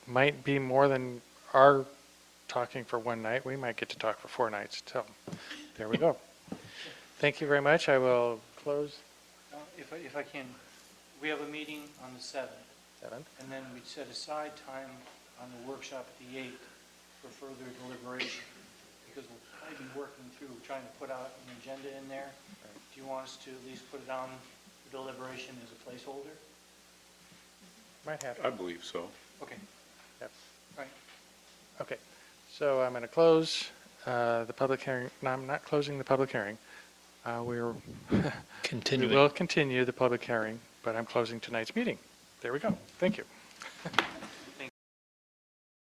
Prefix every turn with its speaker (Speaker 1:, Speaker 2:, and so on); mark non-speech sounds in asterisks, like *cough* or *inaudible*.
Speaker 1: might be more than our talking for one night. We might get to talk for four nights. So there we go. Thank you very much. I will close
Speaker 2: Uh, If I, if I can, we have a meeting on the seventh,
Speaker 1: seven.
Speaker 2: and then we set aside time on the workshop at the eighth for further deliberation, because we'll probably be working through, trying to put out an agenda in there. Do you want us to at least put it on for deliberation as a placeholder?
Speaker 1: Might happen.
Speaker 3: I believe so.
Speaker 2: Okay,
Speaker 1: Yep.
Speaker 2: right.
Speaker 1: Okay, so I'm going to close uh, the public hearing, no, I'm not closing the public hearing. Uh, We're, *laughs* we
Speaker 4: Continuing.
Speaker 1: will continue the public hearing, but I'm closing tonight's meeting. There we go, thank you.